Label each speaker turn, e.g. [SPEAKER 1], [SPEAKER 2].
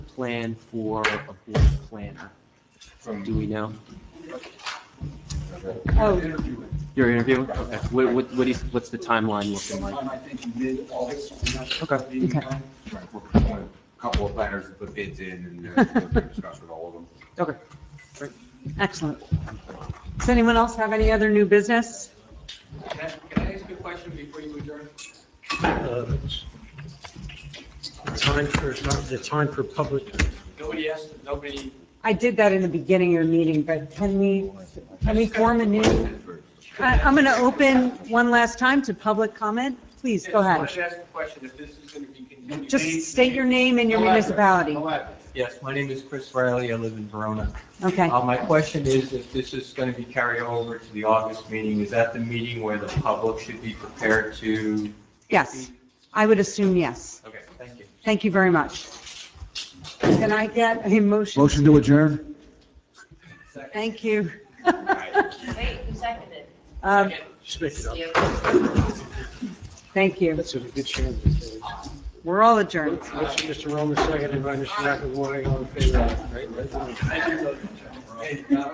[SPEAKER 1] plan for a board planner?
[SPEAKER 2] From
[SPEAKER 1] Do we know?
[SPEAKER 3] Oh.
[SPEAKER 2] interviewing.
[SPEAKER 1] You're interviewing? Okay. What, what, what is, what's the timeline looking like?
[SPEAKER 2] Sometime, I think, mid-August.
[SPEAKER 1] Okay.
[SPEAKER 3] Okay.
[SPEAKER 2] Right, We're pursuing a couple of planners to put bids in and uh, we'll discuss with all of them.
[SPEAKER 1] Okay.
[SPEAKER 3] Excellent. Does anyone else have any other new business?
[SPEAKER 4] Can I- can I ask you a question before you adjourn?
[SPEAKER 5] Uh, Time for, the time for public,
[SPEAKER 4] Nobody asked, nobody.
[SPEAKER 3] I did that in the beginning of your meeting, but can we, can we form a new? I- I'm going to open one last time to public comment. Please, go
[SPEAKER 4] I just
[SPEAKER 3] ahead.
[SPEAKER 4] wanted to ask a question, if this is going to be continued.
[SPEAKER 3] Just state your name and your municipality.
[SPEAKER 6] Yes, my name is Chris Riley. I live in Verona.
[SPEAKER 3] Okay.
[SPEAKER 6] Uh, My question is if this is going to be carried over to the August meeting, is that the meeting where the public should be prepared to?
[SPEAKER 3] Yes. I would assume yes.
[SPEAKER 6] Okay, thank you.
[SPEAKER 3] Thank you very much. Can I get a motion?
[SPEAKER 7] Motion to adjourn?
[SPEAKER 3] Thank you.
[SPEAKER 8] Wait, who seconded?
[SPEAKER 3] Um,
[SPEAKER 5] just make it up.
[SPEAKER 8] You.
[SPEAKER 3] Thank you.
[SPEAKER 5] That's a good chance.
[SPEAKER 3] We're all adjourned.
[SPEAKER 5] Mr. Roman, second, and by Mr. McAvoy, all in favor, right?
[SPEAKER 4] Hey, uh,